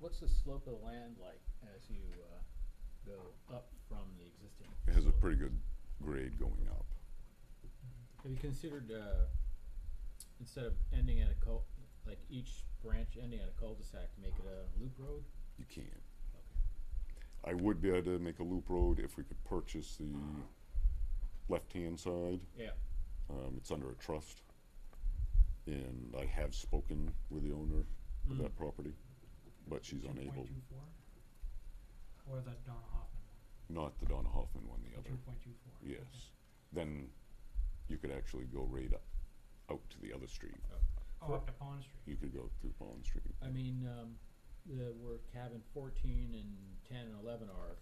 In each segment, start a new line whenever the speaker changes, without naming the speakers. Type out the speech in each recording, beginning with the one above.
what's the slope of the land like as you, uh, go up from the existing?
It has a
facility?
pretty good grade going up.
Have you considered, uh, instead of ending at a cul, like each branch ending at a cul-de-sac, to make it a loop road?
You can.
Okay.
I would be able to make a loop road if we could purchase the left-hand side.
Yeah,
Um, it's under a trust. And I have spoken with the owner of
Mm.
that property, but she's unable,
2.24? Or the Donna Hoffman
not the Donna Hoffman one, the
one,
other.
two point two four?
Yes. Then you could actually go right up, out to the other street.
Oh, up to Pond Street.
You could go through Bond Street.
I mean, um, the, where cabin fourteen and ten and eleven are,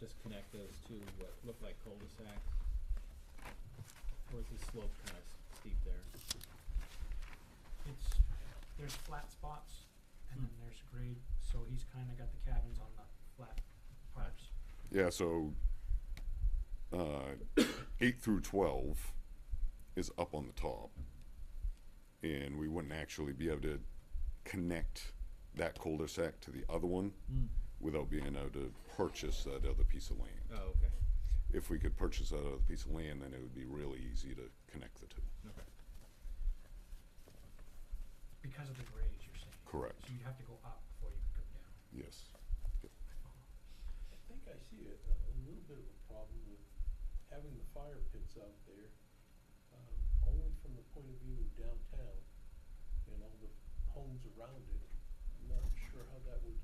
just connect those to what look like cul-de-sacs. Or is the slope kind of steep there?
It's, there's flat spots and
Hmm.
then there's grade, so he's kinda got the cabins on the flat parts.
Yeah, so uh, 8 through 12 is up on the top. And we wouldn't actually be able to connect that cul de sac to the other one without being able to purchase that other piece of land.
Oh, okay,
If we could purchase that other piece of land, then it would be really easy to connect the two.
okay.
Because of the grades, you're saying?
Correct.
So you'd have to go up before you could come down.
Yes.
I think I see a, a a little bit of a problem with having the fire pits out there, um, only from the point of view of downtown and all the homes around it. I'm not sure how that would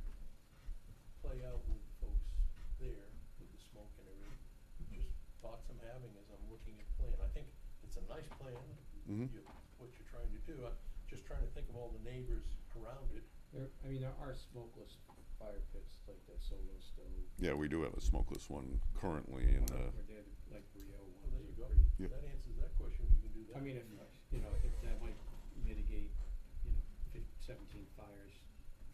play out with folks there with the smoke and everything. Just thoughts I'm having as I'm looking at plan. I think it's a nice plan,
Mhm.
you, what you're trying to do. I'm just trying to think of all the neighbors around it.
There, I mean, there are smokeless fire pits like that solo stove.
Yeah, we do have a smokeless one currently in uh,
Or
the.
they're the- like Rio
Well,
ones
Oh, there you
are
go.
pretty.
Yeah.
That answers that question, if you can do that.
I mean, if, you know, if that might mitigate, you know, fif- seventeen fires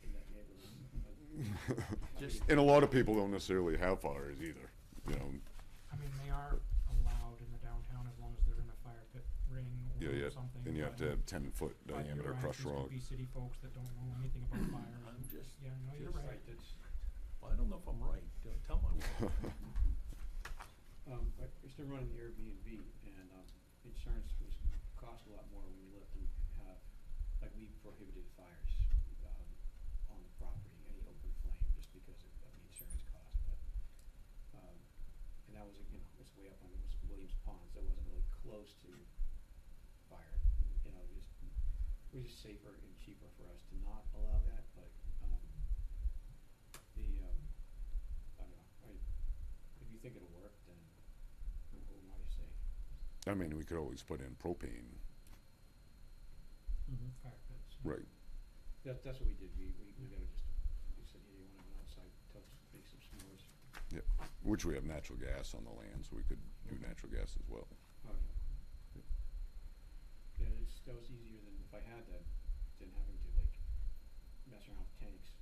in that neighborhood. but- Just-
and a lot of people don't necessarily have fires either. You know,
I mean, they are allowed in the downtown as long as they're in a fire pit ring
yeah,
or
yeah,
something.
and you have
but-
to have ten foot
but you're
diameter
right,
crushed
these
rock.
could be city folks that don't know anything about fire.
I'm just,
Yeah, no, you're
Just
right.
Right, that's,
I don't know if I'm right, Tell- tell my wife.
um, I used to run an Airbnb and, um, insurance was, cost a lot more when we let them have, like, we prohibited fires, um, on the property, any open flame, just because of, of the insurance cost, but, um, and that was, you know, it's way up on, it was Williams Pond, so it wasn't really close to fire, you know, just, it was just safer and cheaper for us to not allow that, but, um, the, um, I don't know, I, if you think it'll work, then who am I to say?
I mean, we could always put in propane,
Mm-hmm.
Fire pits.
right?
That, that's what we did, we, we, we gotta just, we said, yeah, you wanna go outside, tell us, make some s'mores,
Which we have natural gas on the land, so we could do natural gas as well.
oh, yeah. Yeah, it's, that was easier than if I had that, than having to like mess around with tanks.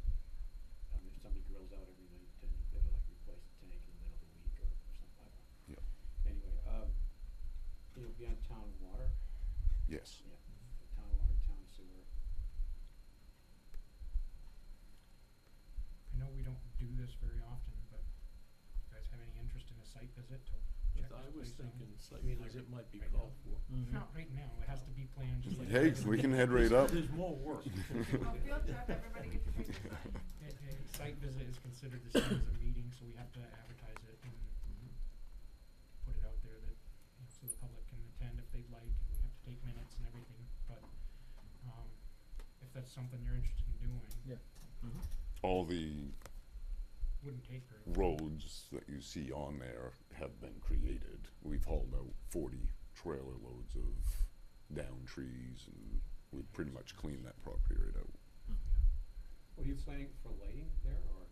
Um, if somebody grills out every night, then you better like replace the tank in the middle of the week or something, I don't know.
Yep.
Anyway, um, you'll be on town water,
Yes.
yeah, town water, town sewer,
I know we don't do this very often, but you guys have any interest in a site visit to check this place out?
I was thinking site
mean, like,
visit might be
right now?
called for.
Mm-hmm.
Not right now, it has to be planned just like.
Hey, we can head right up.
There's more work.
Well, field trip, everybody gets a free design.
A, a site visit is considered the same as a meeting, so we have to advertise it and put it out there that, you know, so the public can attend if they'd like, and we have to take minutes and everything, but, um, if that's something you're interested in doing,
Mm-hmm.
All the
wouldn't take very long.
roads that you see on there have been created. We've hauled out forty trailer loads of down trees and we pretty much cleaned that property right out.
Were you planning for lighting there, or,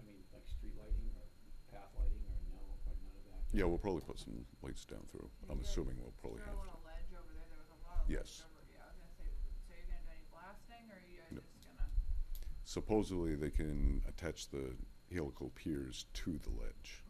I mean, like street lighting or path lighting, or no, or none of that?
Yeah, we'll probably put some lights down through. I'm assuming we'll probably
Throw
have to.
on a ledge over there, there was a lot of
Yes.
ledge over, yeah, I was gonna say, so you're gonna do any blasting, or are you guys
No.
just gonna?
Supposedly they can attach the helical piers to the ledge.